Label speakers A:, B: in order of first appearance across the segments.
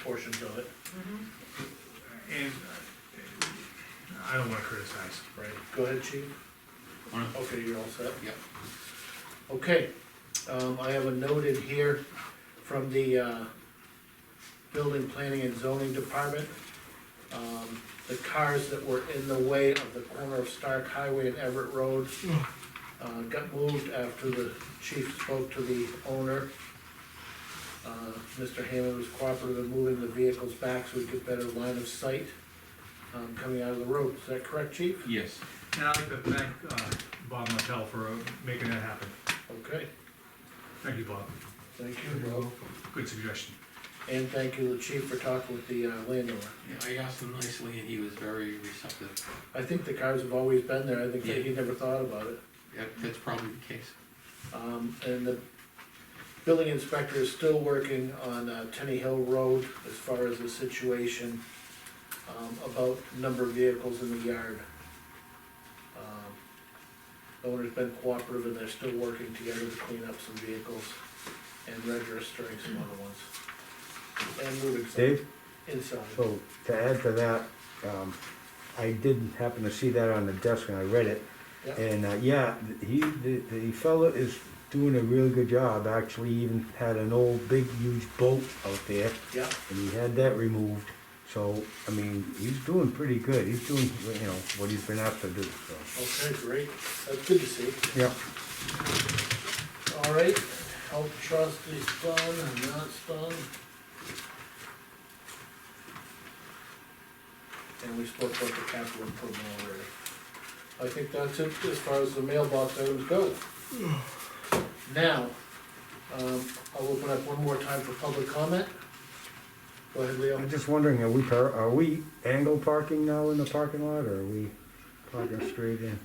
A: portions of it,
B: And uh, I don't wanna criticize.
A: right? Go ahead, chief.
C: Alright.
A: Okay, you're all set?
C: Yep.
A: Okay, um, I have a note in here from the, uh, Building Planning and Zoning Department. Um, the cars that were in the way of the corner of Stark Highway and Everett Road uh, got moved after the chief spoke to the owner. Uh, Mr. Hammond was cooperative in moving the vehicles back so we could better line of sight, um, coming out of the road. Is that correct, chief?
C: Yes.
B: And I'd like to thank, uh, Bob Martell for uh, making that happen.
A: Okay,
B: Thank you, Bob.
A: thank you, Rob.
B: Good suggestion.
A: And thank you, the chief, for talking with the uh, landowner.
C: Yeah, I asked him nicely and he was very receptive.
A: I think the cars have always been there. I think that he never thought about it.
C: That, that's probably the case.
A: Um, and the building inspector is still working on, uh, Tenny Hill Road as far as the situation, um, about number of vehicles in the yard. Um, the Owner's been cooperative and they're still working together to clean up some vehicles and registering some other ones. And moving some
D: Dave, Oh.
A: inside.
D: so to add to that, um, I did happen to see that on the desk and I read it.
A: Yeah,
D: And, uh, yeah, th- he, the, the fellow is doing a really good job, actually even had an old big huge boat out there
A: yeah,
D: and he had that removed. So, I mean, he's doing pretty good, he's doing, you know, what he's been asked to do, so.
A: okay, great. That's good to see.
D: Yeah,
A: All right, health trust is done, and that's done. And we spoke about the capital improvement already. I think that's it as far as the mailbox items go. Now, um, I'll open up one more time for public comment. Go ahead, Leo.
D: I'm just wondering, are we, par- are we angle parking now in the parking lot or are we parking straight in?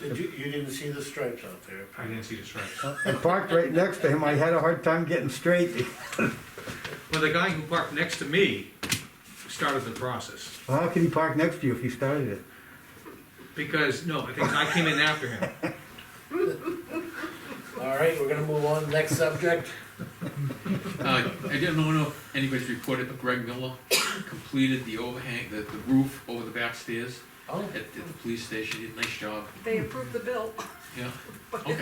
A: Did you, you didn't see the stripes out there?
B: I didn't see this right.
D: I parked right next to him, I had a hard time getting straight,
B: Well, the guy who parked next to me started the process.
D: Well, How could he park next to you if he started it?
B: Because, no, I think I came in after him.
A: All right, we're gonna move on, next subject.
C: Uh, I didn't know if anybody's reported, but Greg Miller completed the overhang, the, the roof over the back stairs
A: Oh,
C: at, at the police station. He did a nice job.
E: They approved the bill,
C: Yeah, okay.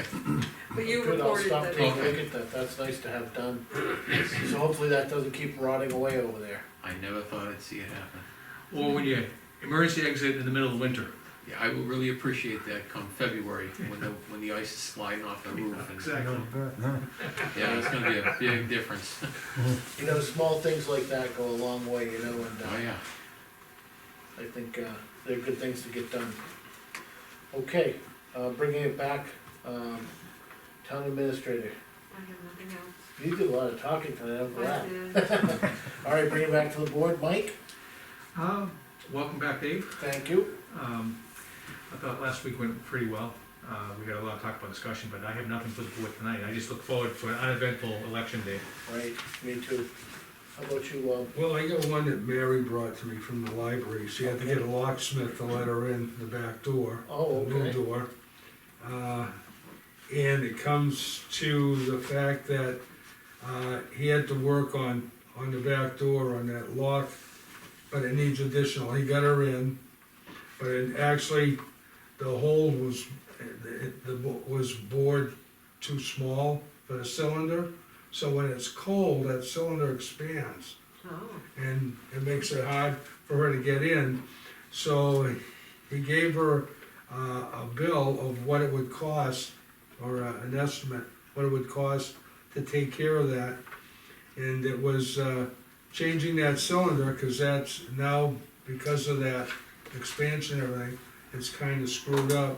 E: but you
A: good, I'll
E: reported
A: stop
E: that.
A: taking a look at that, that's nice to have done.
C: Yes.
A: So hopefully that doesn't keep rotting away over there.
C: I never thought I'd see it happen.
B: Or when you emergency exit in the middle of winter.
C: Yeah, I will really appreciate that come February, when the, when the ice is sliding off the roof. and-
D: Huh?
C: Yeah, it's gonna be a big difference.
A: You know, small things like that go a long way, you know, and
C: Oh,
A: uh,
C: yeah.
A: I think uh, they're good things to get done. Okay, uh, bringing it back, um, town administrator,
E: I have nothing else.
A: you did a lot of talking tonight, I'm
E: I
A: glad.
E: did.
A: All right, bring it back to the board, Mike,
B: Uh, welcome back, Dave.
A: thank you.
B: Um, I thought last week went pretty well. Uh, we had a lot of talk about discussion, but I have nothing for the board tonight. I just look forward to an uneventful election day.
A: Right, me too. How about you, um,
F: Well, I got one that Mary brought to me from the library, she had to get a locksmith to let her in the back door.
A: Oh,
F: the New
A: okay.
F: door. Uh, and it comes to the fact that, uh, he had to work on, on the back door, on that lock, but it needs additional, he got her in, but it actually, the hole was, it, the, bo- was bored too small for the cylinder, so when it's cold, that cylinder expands
E: Oh,
F: and it makes it hard for her to get in. So he gave her uh, a bill of what it would cost, or uh, an estimate, what it would cost to take care of that. And it was uh, changing that cylinder, because that's now, because of that expansion and everything, it's kind of screwed up.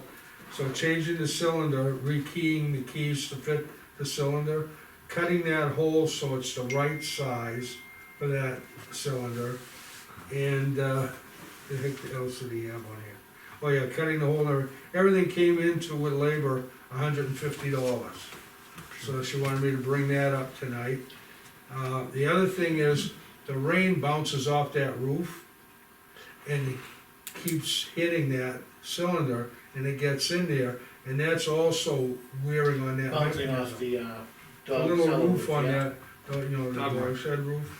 F: So changing the cylinder, rekeying the keys to fit the cylinder, cutting that hole so it's the right size for that cylinder. And, uh, the heck else did he have on here? Oh yeah, cutting the hole, and everything came into with labor, hundred and fifty dollars. So she wanted me to bring that up tonight. Uh, the other thing is, the rain bounces off that roof and keeps hitting that cylinder and it gets in there, and that's also wearing on that
A: bouncing
F: mechanism.
A: off the uh,
F: A
A: dog
F: little
A: cellar
F: roof on
A: yeah.
F: that, uh, you know, the
B: Dog
F: dog
B: roof.
F: shed roof,